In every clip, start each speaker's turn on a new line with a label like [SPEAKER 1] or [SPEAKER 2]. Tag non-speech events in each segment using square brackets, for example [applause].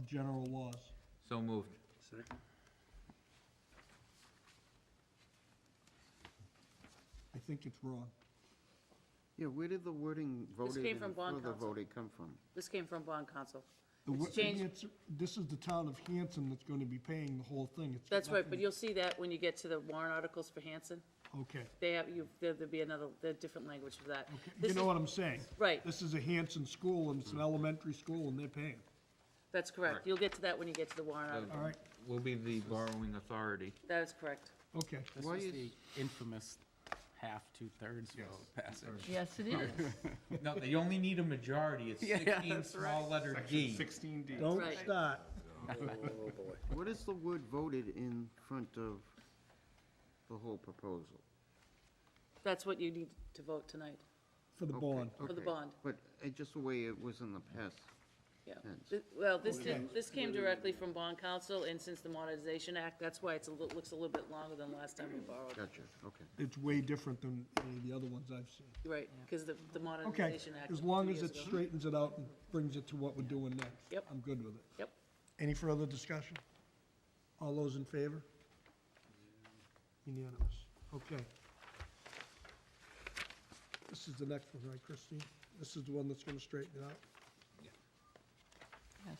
[SPEAKER 1] general laws.
[SPEAKER 2] So moved.
[SPEAKER 1] I think it's wrong.
[SPEAKER 3] Yeah, where did the wording voted
[SPEAKER 4] came from
[SPEAKER 3] and
[SPEAKER 4] bond
[SPEAKER 3] further
[SPEAKER 4] counsel.
[SPEAKER 3] voted come from?
[SPEAKER 4] This came from bond council.
[SPEAKER 1] The wo-
[SPEAKER 4] It's changed.
[SPEAKER 1] it's- This is the town of Hanson that's gonna be paying the whole thing. It's got
[SPEAKER 4] That's right, but
[SPEAKER 1] nothing-
[SPEAKER 4] you'll see that when you get to the warrant articles for Hanson.
[SPEAKER 1] Okay,
[SPEAKER 4] They have, you, there'd be another, there'd different language for that.
[SPEAKER 1] okay.
[SPEAKER 4] This
[SPEAKER 1] You know
[SPEAKER 4] is-
[SPEAKER 1] what I'm saying?
[SPEAKER 4] Right.
[SPEAKER 1] This is a Hanson school, and it's an elementary school, and they're paying.
[SPEAKER 4] That's correct.
[SPEAKER 2] Correct.
[SPEAKER 4] You'll get to that when you get to the warrant
[SPEAKER 2] So
[SPEAKER 4] article.
[SPEAKER 1] All right,
[SPEAKER 2] We'll be the borrowing authority.
[SPEAKER 4] That is correct.
[SPEAKER 1] okay.
[SPEAKER 5] This
[SPEAKER 3] Why
[SPEAKER 5] was
[SPEAKER 3] is-
[SPEAKER 5] the infamous half, two-thirds vote passage.
[SPEAKER 6] Yes, it is.
[SPEAKER 2] No, they only need a majority. It's
[SPEAKER 5] [laughs] Yeah, yeah,
[SPEAKER 2] sixteen
[SPEAKER 5] that's right.
[SPEAKER 2] small letter D.
[SPEAKER 7] Sixteen D.
[SPEAKER 1] Don't
[SPEAKER 4] Right.
[SPEAKER 1] start.
[SPEAKER 3] What is the word voted in front of the whole proposal?
[SPEAKER 4] That's what you need to vote tonight
[SPEAKER 1] For the
[SPEAKER 3] Okay,
[SPEAKER 1] bond.
[SPEAKER 4] For the
[SPEAKER 3] okay.
[SPEAKER 4] bond.
[SPEAKER 3] But uh, just the way it was in the past.
[SPEAKER 4] Yeah.
[SPEAKER 3] Thanks.
[SPEAKER 4] Th- Well, this,
[SPEAKER 1] Okay.
[SPEAKER 4] did- this came directly from Bond Council, and since the Modernization Act, that's why it's a, lit- looks a little bit longer than last time we borrowed.
[SPEAKER 3] Gotcha, okay.
[SPEAKER 1] It's way different than any of the other ones I've seen.
[SPEAKER 4] Right, because the, the
[SPEAKER 1] Okay,
[SPEAKER 4] Modernization Act.
[SPEAKER 1] as
[SPEAKER 4] two
[SPEAKER 1] long as
[SPEAKER 4] years
[SPEAKER 1] it
[SPEAKER 4] ago.
[SPEAKER 1] straightens it out and brings it to what we're doing next.
[SPEAKER 4] Yep.
[SPEAKER 1] I'm good with it.
[SPEAKER 4] Yep,
[SPEAKER 1] Any further discussion? All those in favor? Unanimous. Okay. This is the next one, right, Christine? This is the one that's gonna straighten it out?
[SPEAKER 6] Yes,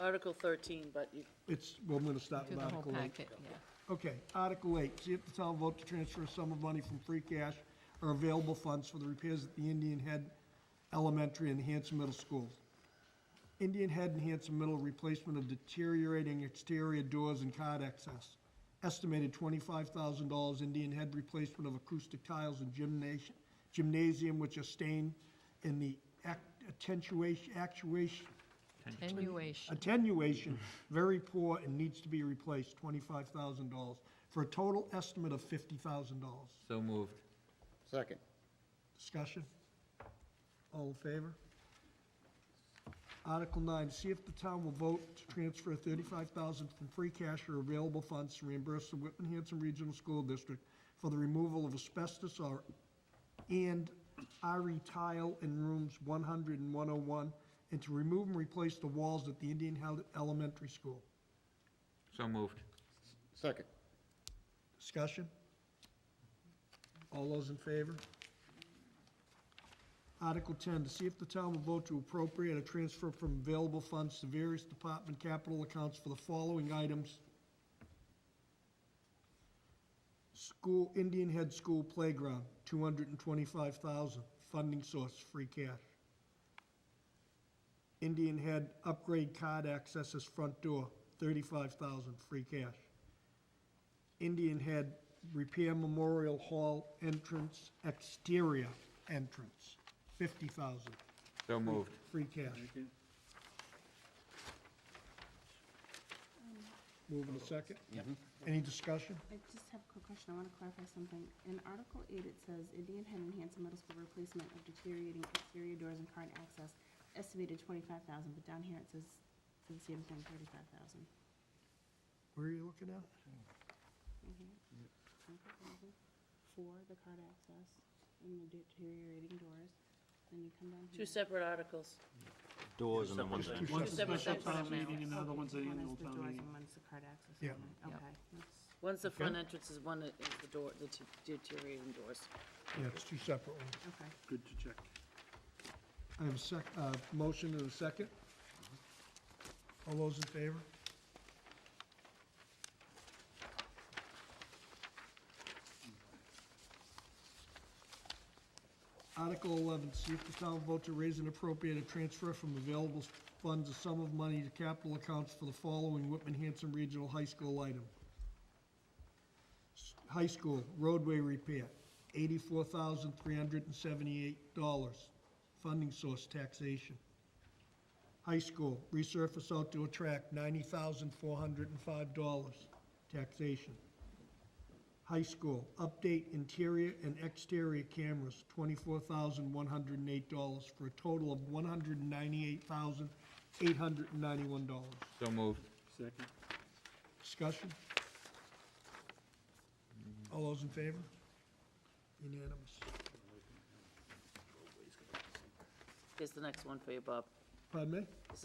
[SPEAKER 4] Article thirteen, but you,
[SPEAKER 1] It's, well, I'm gonna start
[SPEAKER 6] through
[SPEAKER 1] with
[SPEAKER 6] the whole
[SPEAKER 1] Article eight.
[SPEAKER 6] packet, yeah.
[SPEAKER 1] Okay, Article eight, see if the town vote to transfer a sum of money from free cash or available funds for the repairs at the Indian Head Elementary and Hanson Middle Schools. Indian Head and Hanson Middle replacement of deteriorating exterior doors and card access. Estimated twenty-five thousand dollars Indian Head replacement of acoustic tiles and gymnasium, gymnasium which are stained in the ac- attenuation, actuation,
[SPEAKER 6] Attenuation.
[SPEAKER 1] attenuation, very poor and needs to be replaced, twenty-five thousand dollars, for a total estimate of fifty thousand dollars.
[SPEAKER 2] So moved.
[SPEAKER 3] Second.
[SPEAKER 1] Discussion? All in favor? Article nine, see if the town will vote to transfer thirty-five thousand from free cash or available funds to reimburse the Whitman Hanson Regional School District for the removal of asbestos or, and RE tile in rooms 100 and 101, and to remove and replace the walls at the Indian Hill Elementary School.
[SPEAKER 2] So moved.
[SPEAKER 3] Second.
[SPEAKER 1] Discussion? All those in favor? Article ten, to see if the town will vote to appropriate a transfer from available funds to various department capital accounts for the following items. School, Indian Head School Playground, two hundred and twenty-five thousand, funding source, free cash. Indian Head Upgrade Card Accesses Front Door, thirty-five thousand, free cash. Indian Head Repair Memorial Hall entrance, exterior entrance, fifty thousand,
[SPEAKER 2] So moved.
[SPEAKER 1] free cash. Move in a second? Any discussion?
[SPEAKER 8] I just have a quick question. I want to clarify something. In Article eight, it says Indian Head and Hanson Middle School replacement of deteriorating exterior doors and current access estimated twenty-five thousand, but down here it says the same thing, thirty-five thousand.
[SPEAKER 1] Where are you looking at?
[SPEAKER 8] For the card access and the deteriorating doors, then you come down here.
[SPEAKER 4] two separate articles.
[SPEAKER 7] Doors and one's
[SPEAKER 4] Two separate
[SPEAKER 7] Special
[SPEAKER 4] sections.
[SPEAKER 7] town meeting and the other one's the
[SPEAKER 8] One
[SPEAKER 7] annual
[SPEAKER 8] is the
[SPEAKER 7] town
[SPEAKER 8] doors
[SPEAKER 7] meeting.
[SPEAKER 8] and one's the card access.
[SPEAKER 1] Yeah.
[SPEAKER 8] only.
[SPEAKER 6] Yep.
[SPEAKER 8] Okay, that's-
[SPEAKER 4] One's the
[SPEAKER 1] Okay.
[SPEAKER 4] front entrance, is one is the door, the t- deteriorating doors.
[SPEAKER 1] Yeah, it's two separate ones.
[SPEAKER 8] okay.
[SPEAKER 7] Good to check.
[SPEAKER 1] I have a sec, uh, motion and a second. All those in favor? Article eleven, see if the town vote to raise and appropriate a transfer from available funds a sum of money to capital accounts for the following Whitman Hanson Regional High School item. S- High School roadway repair, eighty-four thousand three hundred and seventy-eight dollars, funding source taxation. High School resurface outdoor track, ninety thousand four hundred and five dollars, taxation. High School update interior and exterior cameras, twenty-four thousand one hundred and eight dollars, for a total of one hundred and ninety-eight thousand eight hundred and ninety-one dollars.
[SPEAKER 2] So moved.
[SPEAKER 7] Second.
[SPEAKER 1] Discussion? All those in favor? Unanimous.
[SPEAKER 4] Here's the next one for you, Bob.
[SPEAKER 1] Pardon me?